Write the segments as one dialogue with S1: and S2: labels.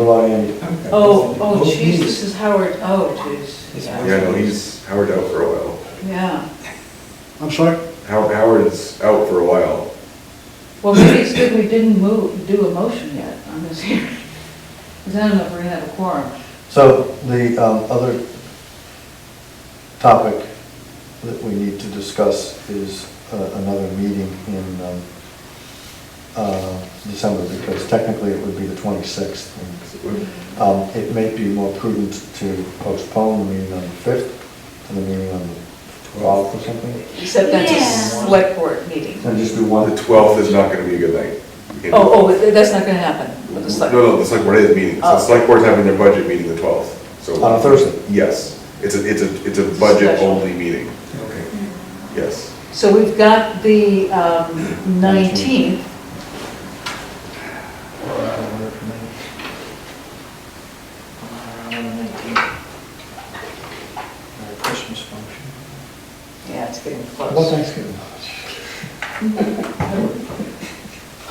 S1: about Andy.
S2: Oh, oh, jeez, this is Howard, oh, jeez.
S3: Yeah, no, he's, Howard's out for a while.
S2: Yeah,
S4: I'm sorry?
S3: How- Howard's out for a while.
S2: well, maybe it's good we didn't move, do a motion yet on this hearing. Because I don't know if we're gonna have a quorum.
S1: So the um, other topic that we need to discuss is uh, another meeting in um, uh, December, because technically it would be the 26th. and, um, It may be more prudent to postpone the meeting on the 5th to the meeting on the 12th or something,
S2: Except that's a
S5: Yeah.
S2: select board meeting.
S1: and just do
S3: The
S1: one.
S3: 12th is not going to be a good night. You know?
S2: Oh, oh, that's not gonna happen with the
S3: No,
S2: select.
S3: no, the select board is meeting, so
S2: Oh.
S3: the select board's having their budget meeting the 12th, so.
S1: On a Thursday?
S3: Yes, it's a, it's a, it's a
S2: Special.
S3: budget-only meeting. Okay. Yes,
S2: So we've got the um, 19th,
S4: Christmas function.
S2: yeah, it's getting
S1: What
S2: close.
S1: Thanksgiving?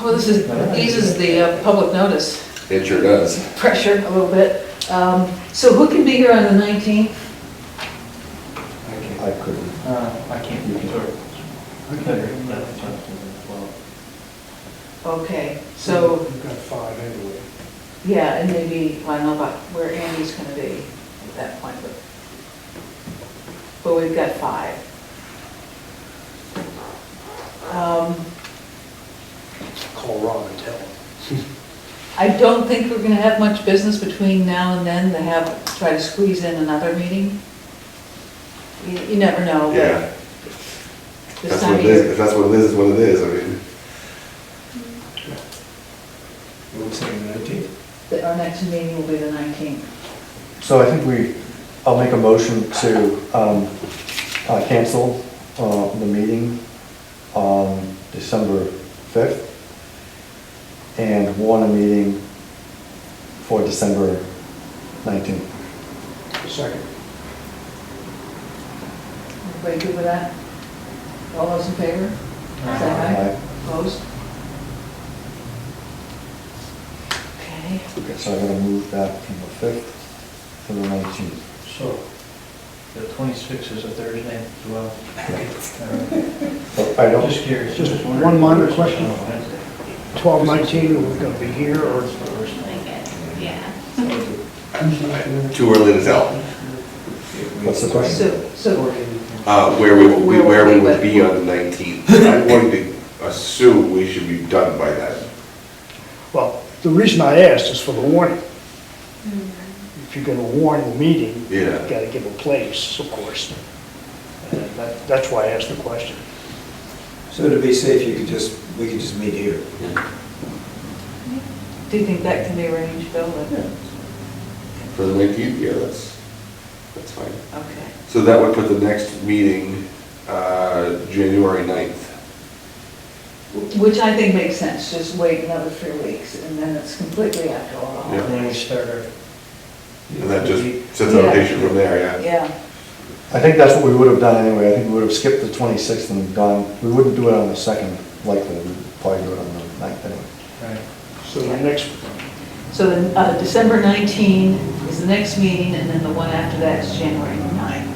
S2: Well, this is, eases the uh, public notice
S3: it sure does.
S2: pressure a little bit. Um, So who can be here on the 19th?
S1: I couldn't.
S4: Uh, I can't do it.
S2: Okay, so,
S6: We've got five anyway.
S2: yeah, and maybe, I don't know about where Andy's gonna be at that point, but, but we've got five. Um,
S6: Call Rob and tell him.
S2: I don't think we're gonna have much business between now and then to have, try to squeeze in another meeting. You you never know,
S3: Yeah,
S2: but this
S3: that's
S2: time
S3: what
S2: of
S3: it is,
S2: year.
S3: if that's what it is, it's what it is, I mean.
S6: We'll say nineteenth.
S2: that Our next meeting will be the 19th.
S1: So I think we, I'll make a motion to um, uh, cancel uh, the meeting on December 5th and warn a meeting for December 19th.
S6: Second.
S2: Everybody good with that? All those in favor? Say aye.
S1: Aye.
S2: Opposed? Okay,
S1: Okay, so I'm going to move that from the 5th to the 19th.
S4: So, the 26th is a Thursday as well.
S1: But Oh, I don't,
S4: Just curious.
S6: Just
S4: wondering.
S6: one minor question.
S4: Oh, Wednesday.
S6: Twelve nineteen, are we gonna be here or?
S5: Like it, yeah.
S3: Too early to tell,
S1: what's the question?
S2: so, so,
S3: uh, where we, we- where we
S2: Where
S3: would
S2: we-
S3: be on the 19th. I'm going to assume we should be done by then.
S6: Well, the reason I asked is for the warning.
S2: Hmm.
S6: If you're gonna warn the meeting, you
S3: Yeah.
S6: gotta give a place, of course. And that, that's why I asked the question.
S7: So to be safe, you could just, we could just meet here.
S2: do you think that can be arranged, Bill?
S3: For the 19th, yeah, that's, that's fine.
S2: Okay.
S3: So that would put the next meeting, uh, January 9th.
S2: Which I think makes sense, just wait another three weeks, and then it's completely after all.
S3: Yeah.
S4: And then we start uh, our.
S3: And that just sets out a date from there, yeah.
S2: Yeah,
S1: I think that's what we would have done anyway. I think we would have skipped the 26th and gone, we wouldn't do it on the 2nd likely. We'd probably do it on the 9th anyway.
S4: Right.
S6: So the next,
S2: so then, uh, December 19 is the next meeting, and then the one after that is January 9.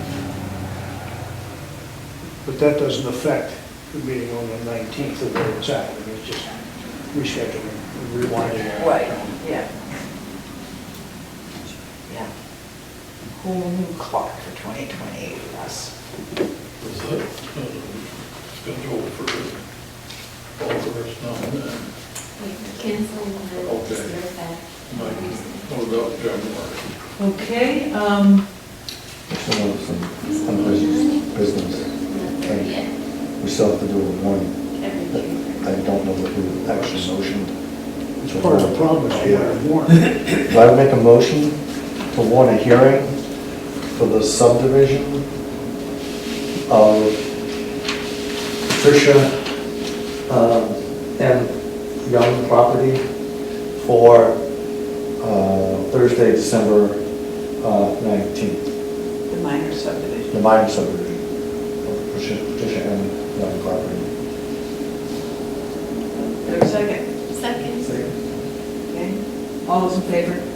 S6: but that doesn't affect the meeting on the nineteenth of where it's at. I mean, it's just rescheduling, rewinding.
S2: Right, yeah. Yeah. Whole new clock for 2028 for us.
S8: Is that scheduled for all of us now and then?
S5: Cancel the,
S8: Okay.
S5: just that.
S8: Like, what about January?
S2: Okay, um,
S1: Still have some unfinished business. thing. We still have to do a warning. but I don't know that we actually motioned.
S6: It's part of the problem, is you gotta warn.
S1: Do I make a motion to warn a hearing for the subdivision of Tricia um, M. Young property for uh, Thursday, December uh, 19th,
S2: the minor subdivision.
S1: the minor subdivision of Tricia Tricia M. Young property.
S2: Is there a second?
S5: Second.
S2: Okay, all those in favor?